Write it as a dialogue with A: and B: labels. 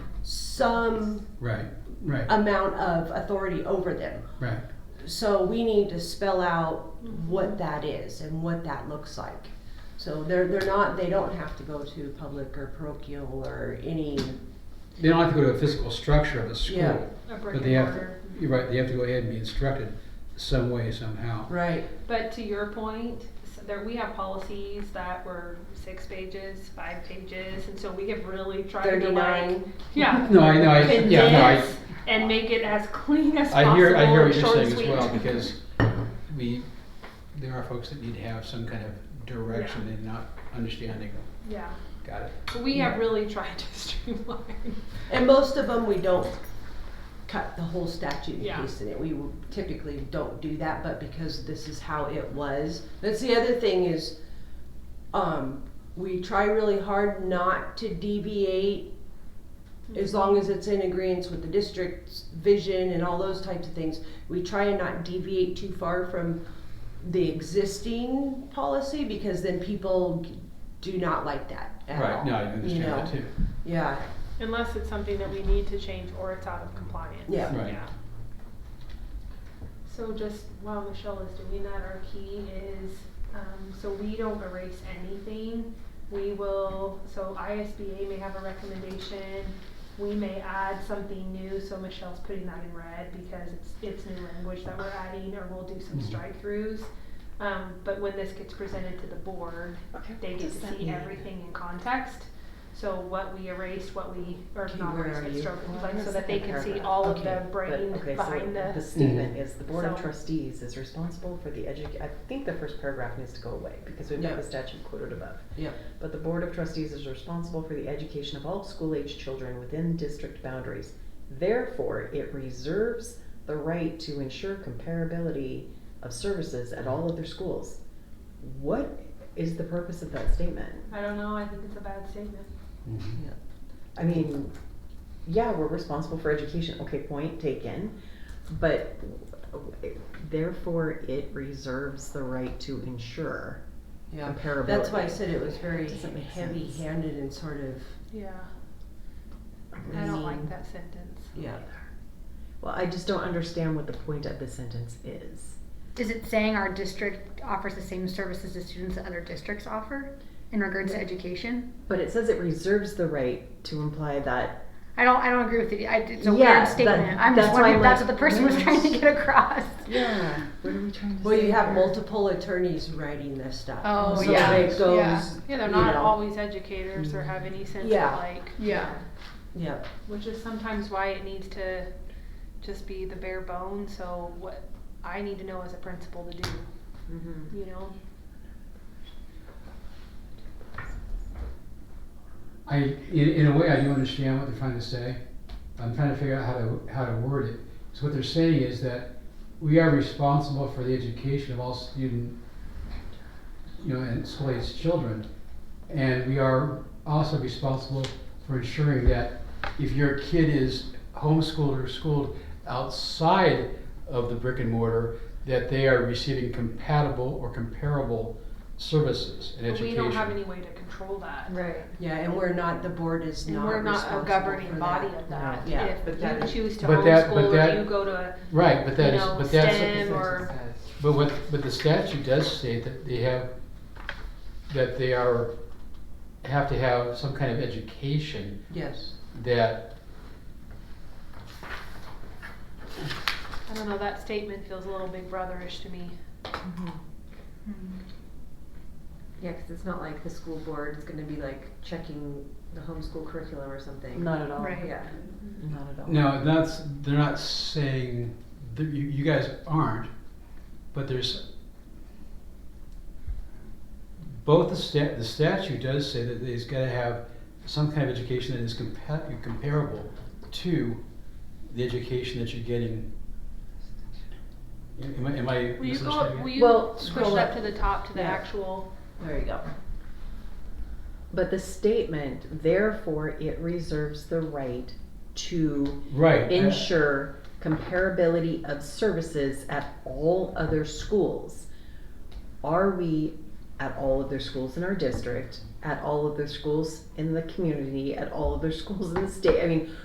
A: some
B: Right, right,
A: amount of authority over them.
B: right.
A: So we need to spell out what that is and what that looks like. So they're, they're not, they don't have to go to public or parochial or any,
B: They don't have to go to a physical structure of the
A: Yeah.
B: school,
C: a brick
B: but
C: and
B: they have,
C: mortar.
B: you're right, they have to go ahead and be instructed some way, somehow.
A: right,
C: But to your point, so there, we have policies that were six pages, five pages, and so we have really tried to like,
A: thirty-nine.
C: yeah.
B: No, I know, I, yeah, no, I,
C: condense And make it as clean as possible
B: I hear, I hear
C: and
B: what you're
C: short and
B: saying as
C: sweet.
B: well, because we, there are folks that need to have some kind of direction and not understanding.
C: Yeah,
B: Got it.
C: but we have really tried to streamline.
A: And most of them, we don't cut the whole statute and
C: Yeah.
A: paste in it. We typically don't do that, but because this is how it was. That's the other thing is, um, we try really hard not to deviate as long as it's in agreement with the district's vision and all those types of things. We try and not deviate too far from the existing policy because then people do not like that at all.
B: Right, no, I
A: you
B: understand
A: know?
B: that too.
A: Yeah,
C: Unless it's something that we need to change or it's out of compliance.
A: Yeah.
B: Right.
C: Yeah. So just while Michelle is doing that, our key is, um, so we don't erase anything. We will, so ISBA may have a recommendation, we may add something new, so Michelle's putting that in red because it's, it's new language that we're adding, or we'll do some
B: Mhm.
C: strike throughs. Um, but when this gets presented to the board, they get
D: does that
C: to see
D: mean?
C: everything in context. So what we erased, what we, or
A: Okay,
C: not
A: where
C: erased,
A: are
C: but
A: you?
C: stroked,
D: Well,
C: like,
D: in
C: so
D: the
C: that they
D: second
C: can see
D: paragraph.
C: all of
D: Okay,
C: the brain
D: but- okay, so
C: behind the.
D: The statement is the board of
C: So-
D: trustees is responsible for the edu, I think the first paragraph needs to go away because we've
A: Yeah.
D: got the statute quoted above.
A: yeah.
D: But the board of trustees is responsible for the education of all school-age children within district boundaries. Therefore, it reserves the right to ensure comparability of services at all other schools. What is the purpose of that statement?
C: I don't know, I think it's a bad statement.
B: Mhm.
D: I mean, yeah, we're responsible for education. Okay, point taken. But therefore, it reserves the right to ensure
A: Yeah,
D: comparability.
A: that's why I said it was very
D: Doesn't make sense.
A: heavy-handed and sort of,
C: Yeah, I
A: I
C: don't
A: don't
C: like
A: mean-
C: that sentence.
A: yeah.
D: Well, I just don't understand what the point of the sentence is.
E: Is it saying our district offers the same services to students that other districts offer in regards to education?
D: But it says it reserves the right to imply that.
E: I don't, I don't agree with it. I, it's a
D: Yeah,
E: weird statement.
D: that-
E: I'm just
D: that's why
E: wondering
D: I'm
E: if that's
D: like,
E: what the person was
D: yes.
E: trying to get across.
C: Mm-hmm.
D: Yeah. What are we trying to
A: Well,
D: say
A: you have
D: here?
A: multiple attorneys writing this stuff.
E: Oh,
A: So
E: yeah,
A: it
C: Yeah,
A: goes,
C: yeah, they're
A: you
C: not
A: know,
C: always educators or have any sense of
A: Yeah.
C: like,
E: Yeah.
A: Yeah,
C: which is sometimes why it needs to just be the bare bones, so what I need to know as a principal to do,
D: Mhm.
C: you know?
B: I, in, in a way, I do understand what they're trying to say. I'm trying to figure out how to, how to word it. So what they're saying is that we are responsible for the education of all student, you know, and school-aged children. And we are also responsible for ensuring that if your kid is homeschooled or schooled outside of the brick and mortar, that they are receiving compatible or comparable services and
C: But
B: education.
C: we don't have any way to control that.
D: Right.
A: yeah, and we're not, the board is
C: And
A: not
C: we're
A: responsible
C: not a governing
A: for
C: body
A: that.
C: of that.
A: Yeah,
D: but that
C: If
D: is-
C: you choose to
B: But that- but
C: homeschool
B: that-
C: or you go to,
B: Right, but that
C: you
B: is,
C: know,
B: but that's.
C: STEM or,
B: But what, but the statute does state that they have, that they are, have to have some kind of education
A: Yes,
B: that,
C: I don't know, that statement feels a little big brotherish to me.
E: Hmm.
F: Yeah, because it's not like the school board is gonna be like checking the homeschool curriculum or something.
D: Not at all.
E: Right.
F: Yeah.
D: Not at all.
B: no, that's, they're not saying, that you, you guys aren't, but there's, both the stat, the statute does say that they's gotta have some kind of education that is compa- comparable to the education that you're getting. Am I, am I
C: Will you go,
B: misunderstanding
C: up-
B: it?
C: will
D: Well,
C: you
D: scroll
C: push up
D: up.
C: to the top to the
A: Yeah.
C: actual,
A: there you go.
D: But the statement, therefore, it reserves the right to
B: Right. uh,
D: ensure comparability of services at all other schools. Are we at all of their schools in our district, at all of their schools in the community, at all of their schools in the state? I mean,